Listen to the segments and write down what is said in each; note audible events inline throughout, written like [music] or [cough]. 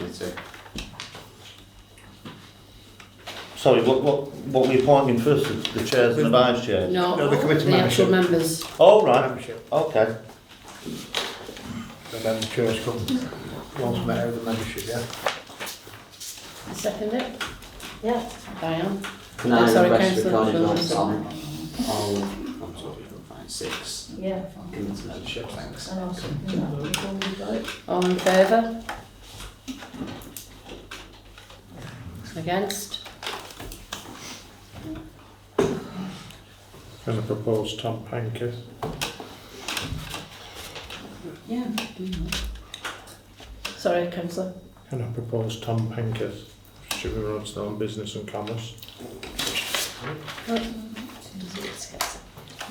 it's a, Sorry, what, what, what we appointing first, the- the chairs and the vice chairs? No, No, the committee the actual membership. members. Oh, right, membership. okay. And then the chairs come once met out of the membership, yeah? I Second it? Yeah. Diane? can Oh, I sorry, request councillor recorded votes on Johnson. all, oh, I'm sorry, fine, six, Yeah. committee membership, thanks. And I'll second that. We've already got it. All in favour? Against? And I propose Tom Panker. Yeah. Sorry, councillor. And I propose Tom Panker. Stuart runs their own business and commerce.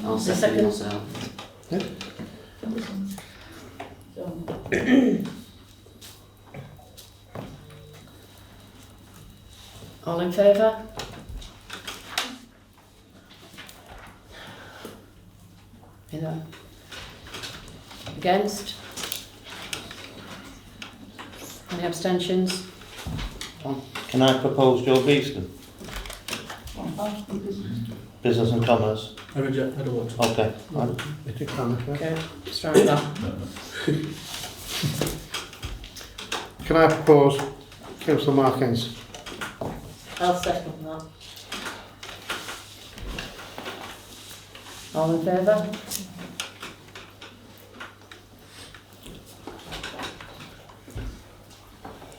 I'll The second second. myself. So, [clears throat] All in favour? You know. Against? Any abstentions? Can I propose Joe Beeston, one back, because Business and Commerce? I reject, I don't want Okay, right. It's unanimous, Okay, strike that. yeah. Can I propose councillor Markins? I'll second that. All in favour?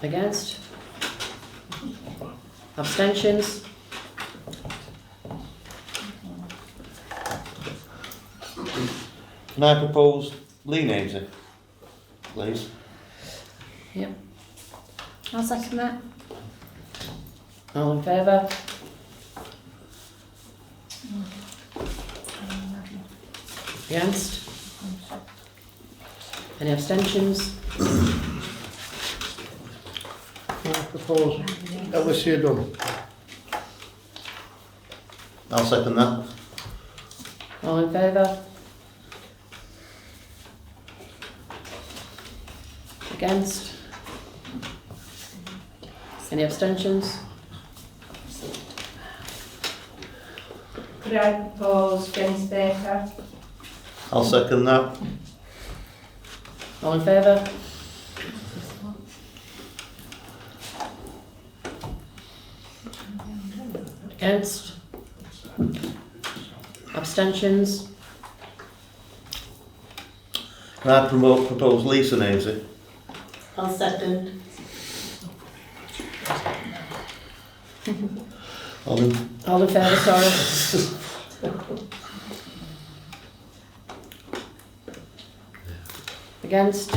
Against? Abstentions? Can I propose Lee Namesy, please? I'll second that. All in favour? Against? Any abstentions? Can I propose Alicia Dunn? I'll second that. All in favour? Against? Any abstentions? Could I propose James Baker? I'll second that. All in favour? Against? Abstentions? Can I promote, propose Lisa Namesy? I'll second. All in, All in favour, sorry. Against?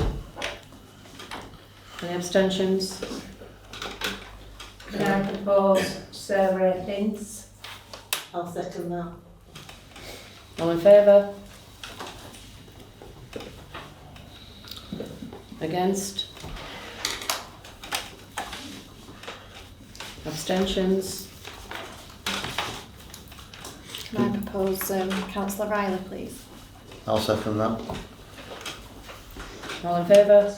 Any abstentions? Could I propose Sarah Hinds? I'll second that. All in favour? Against? Abstentions? Can I propose um, Councillor Riley, please? I'll second that. All in favour?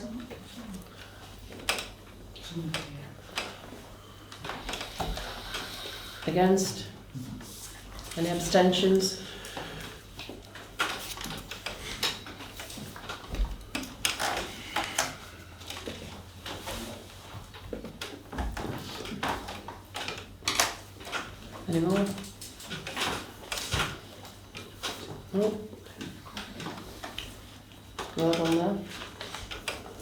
Against? Any abstentions? Any more? No. Not on there.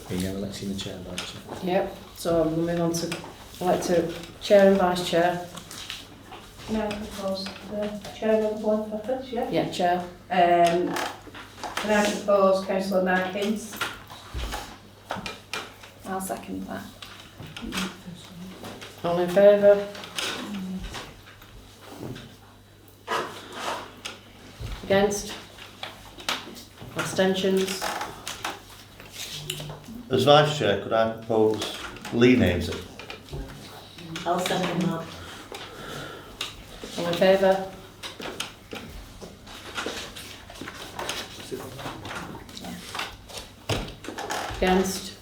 There you go, electing the chair, that's it. Yep, so I'm moving on to, I'd like to chair and vice chair. Can I propose the uh, chair of the board of office, yeah? Yeah, chair. Um, can I propose councillor Markins? I'll second that. All in favour? Against? Abstentions? As vice chair, could I propose Lee Namesy? I'll second that. All in favour? Against?